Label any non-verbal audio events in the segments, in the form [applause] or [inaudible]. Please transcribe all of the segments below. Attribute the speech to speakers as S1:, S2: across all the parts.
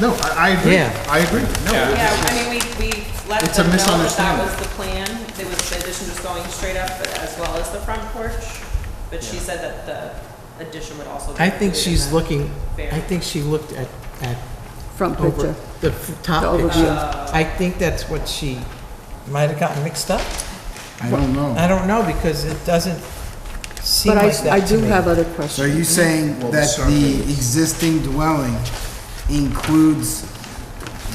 S1: No, I, I agree.
S2: Yeah.
S1: I agree. No,
S3: Yeah, I mean, we, we let
S1: It's a
S3: them know that that
S1: misunderstanding.
S3: was the plan. There was the addition just going straight up but as well as the front porch. But she said that the addition would also be.
S2: I think
S3: included in
S2: she's
S3: that.
S2: looking,
S3: Fair.
S2: I think she looked at, at
S4: front
S2: over, Ah,
S4: picture.
S2: the f- top
S4: The
S2: picture.
S3: overview.
S2: I think that's what she might have gotten mixed up.
S5: I don't know.
S2: I don't know, because it doesn't seem
S4: But I,
S2: like
S4: I
S2: that to
S4: do
S2: me.
S4: have other
S5: So are
S4: questions.
S5: you saying
S1: Well, the
S5: that the
S1: survey-
S5: existing dwelling includes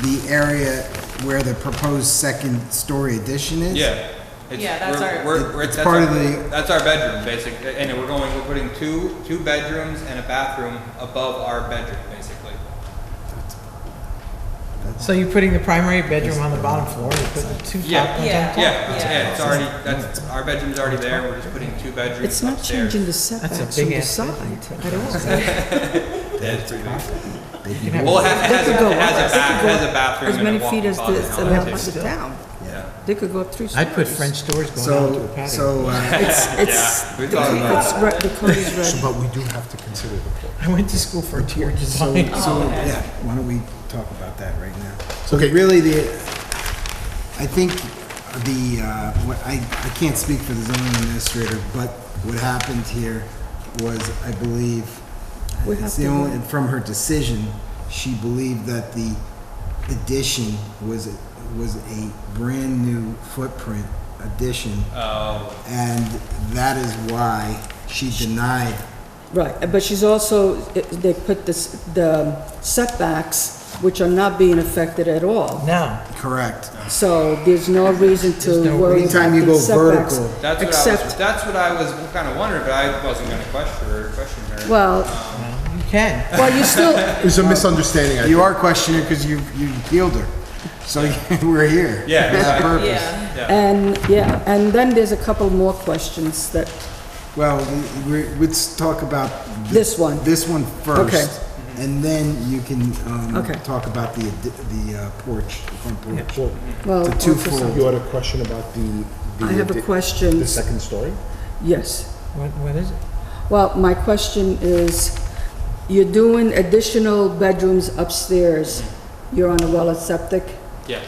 S5: the area where the proposed second-story addition is?
S6: Yeah. It's-
S3: Yeah, that's
S6: we're-
S3: our-
S6: We're, we're,
S5: It's
S6: that's
S5: part
S6: our,
S5: of the-
S6: that's our bedroom, basically, and we're going, we're putting two, two bedrooms and a bathroom above our bedroom, basically.
S2: So you're putting the primary bedroom on the bottom floor, you put the two
S6: Yeah.
S2: top ones on
S3: Yeah.
S2: top?
S6: Yeah, it's-
S3: Yeah.
S6: yeah, it's already, that's, our bedroom's already there, we're just putting two bedrooms
S4: It's not
S6: upstairs.
S4: changing the
S2: That's a
S4: setbacks from
S2: big
S4: the
S2: ass
S4: side
S2: bedroom.
S4: at all.
S6: That's pretty big.
S2: You can have-
S6: Well, it has, it has,
S4: They
S6: a-
S4: could go
S6: it has
S4: up-
S6: a
S4: they
S6: bath,
S4: could go
S6: has a bathroom
S4: As
S6: and a
S4: many feet
S6: walk-in
S4: as the,
S6: closet
S4: as
S6: on it,
S4: the
S6: too.
S4: town.
S6: Yeah.
S4: They could go up three stories.
S2: I'd put French doors going out to
S5: So,
S2: a patio.
S5: so, uh,
S6: [laughs]
S4: It's, it's,
S6: we
S4: the
S6: thought
S4: creek
S6: about
S4: is red, the code is
S2: [laughs]
S4: red.
S1: But we do have to consider the porch.
S2: I went to school for interior design.
S5: uh,
S2: [laughs]
S5: So, yeah, why don't we talk about that right now? So
S1: Okay.
S5: really, the, I think the, uh, what, I, I can't speak for the zoning administrator, but what happened here was, I believe,
S4: We
S5: it's
S4: have
S5: the
S4: to-
S5: only, from her decision, she believed that the addition was, a- was a brand-new footprint addition,
S6: Oh,
S5: and that is why she denied
S4: Right, but she's also, they put this, the setbacks, which are not being affected at all.
S2: Now,
S5: correct.
S4: So there's no reason
S2: There's no
S4: to worry
S5: reason.
S4: about
S5: Anytime you
S4: the
S5: go
S4: setbacks.
S5: vertical.
S6: that's what I was,
S4: Except,
S6: that's what I was kinda wondering, but I wasn't gonna question her, question her.
S4: well,
S2: you can.
S4: well, you still,
S1: There's a misunderstanding, I
S5: You
S1: think.
S5: are questioning because you, you appealed her. So [laughs] we're here.
S6: Yeah,
S5: For that
S6: exactly.
S5: purpose.
S3: Yeah,
S4: and, yeah, and then there's a couple more questions that,
S5: Well, we- we- let's talk about. th-
S4: This one.
S5: This one first.
S4: Okay.
S5: And then you can, um,
S4: Okay.
S5: talk about the, ad- the uh, porch, the front porch.
S1: Well,
S4: well,
S5: It's a twofold.
S1: You had a question about the. the
S4: Oh, I have a
S1: addi-
S4: question.
S1: The second story?
S4: yes.
S2: What, what is it?
S4: Well, my question is, you're doing additional bedrooms upstairs. You're on a well septic.
S6: Yes,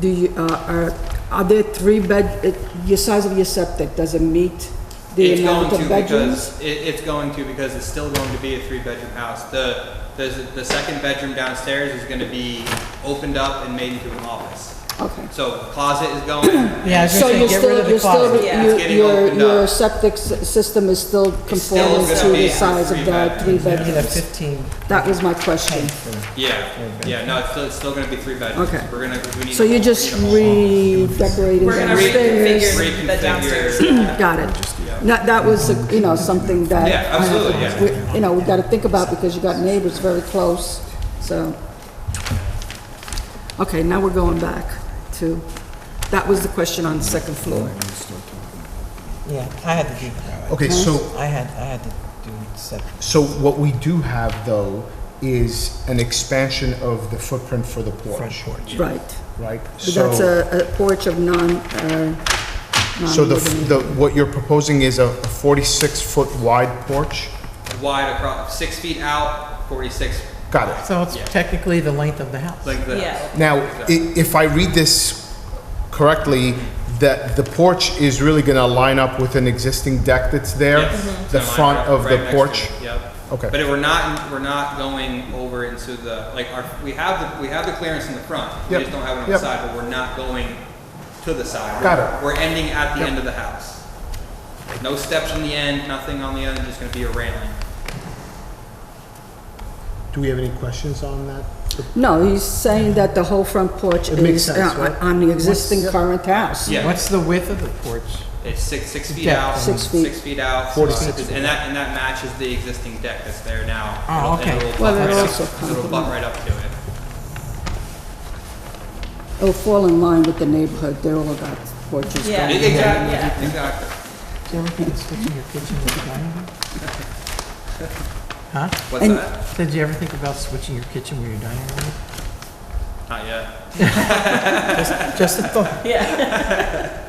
S4: Do you, uh, are, are there three bed, it- your size of your septic, does it meet the
S6: it's going
S4: amount
S6: to
S4: of bedrooms?
S6: because, it, it's going to because it's still going to be a three-bedroom house. The, the, the second bedroom downstairs is gonna be opened up and made into an office.
S4: Okay.
S6: So closet is
S4: [clears throat]
S6: going,
S2: Yeah, I was
S4: So
S2: gonna say,
S4: you're
S2: get rid
S4: still,
S2: of the
S4: you're still,
S2: closet.
S3: Yeah,
S4: you-
S6: it's getting
S4: your,
S6: opened
S4: your
S6: up.
S4: septic s- system is still
S6: still
S4: conforming
S6: gonna
S4: to
S6: be
S4: the size of
S6: three
S4: the
S6: bedrooms.
S4: three
S2: You can have
S4: bedrooms.
S2: fifteen.
S4: That was my question.
S6: yeah, yeah, no, it's still, it's still gonna be three bedrooms.
S4: Okay.
S6: We're gonna, we need.
S4: So
S6: a-
S4: you're
S6: we
S4: just
S6: need a hall.
S4: redecorating
S3: We're gonna
S4: downstairs?
S3: reconfigure the
S6: Reconfigure.
S3: downstairs.
S4: Got it. Not, that was, uh, you know, something that.
S6: Yeah, absolutely, yeah.
S4: we- You know, we gotta think about because you got neighbors very close, so. Okay, now we're going back to, that was the question on the second floor.
S2: Yeah, I had to do that.
S1: Okay, so
S2: I had, I had to do septic.
S1: So what we do have, though, is an expansion of the footprint for the porch,
S4: Right.
S1: right?
S4: But that's
S1: So-
S4: a a porch of non, uh,
S1: So the,
S4: non-living.
S1: the, what you're proposing is a 46-foot wide porch?
S6: [clears throat] Wide across, six feet out, forty-six
S1: Got it.
S2: So it's technically the length of the house.
S6: length of the
S3: Yeah.
S6: house.
S1: Now, i- if I read this correctly, that the porch is really going to line up with an existing deck that's there?
S6: Yes. Mm-hmm.
S1: The
S6: So mine
S1: front
S6: are
S1: of
S6: right
S1: the
S6: next to
S1: porch?
S6: it, Yep.
S1: Okay.
S6: But we're not, we're not going over into the, like, our, we have, the we have the clearance in the front. We
S1: Yep.
S6: just don't have it on the
S1: Yep.
S6: side, but we're not going to the side.
S1: Got it.
S6: We're ending at the end of the house. No steps on the end, nothing on the end, just gonna be a railing.
S1: Do we have any questions on that?
S4: No, he's saying that the whole front porch
S1: It makes
S4: is uh,
S1: sense, right?
S4: on the existing
S1: What's-
S4: current house.
S6: Yeah,
S2: What's the width of the porch?
S6: it's six, six feet
S2: Deck.
S6: out.
S4: Six feet.
S6: Six feet out.
S1: 46
S6: uh,
S1: feet.
S6: And that, and that matches the existing deck that's there now.
S2: Oh,
S6: It'll- and
S2: okay.
S6: it'll
S4: Well,
S6: butt
S4: that
S6: right up-
S4: also
S6: It'll butt
S4: complement-
S6: right up to it.
S4: It'll fall in line with the neighborhood, they're all about porches.
S3: Yeah.
S4: going in.
S6: Exactly, yeah, exactly.
S2: Do you ever think of switching your kitchen with the dining
S1: [laughs]
S2: room? Huh?
S6: What's
S4: And-
S6: that?
S2: Did you ever think about switching your kitchen with your dining room?
S6: Not yet.
S2: Just a thought.
S3: Yeah.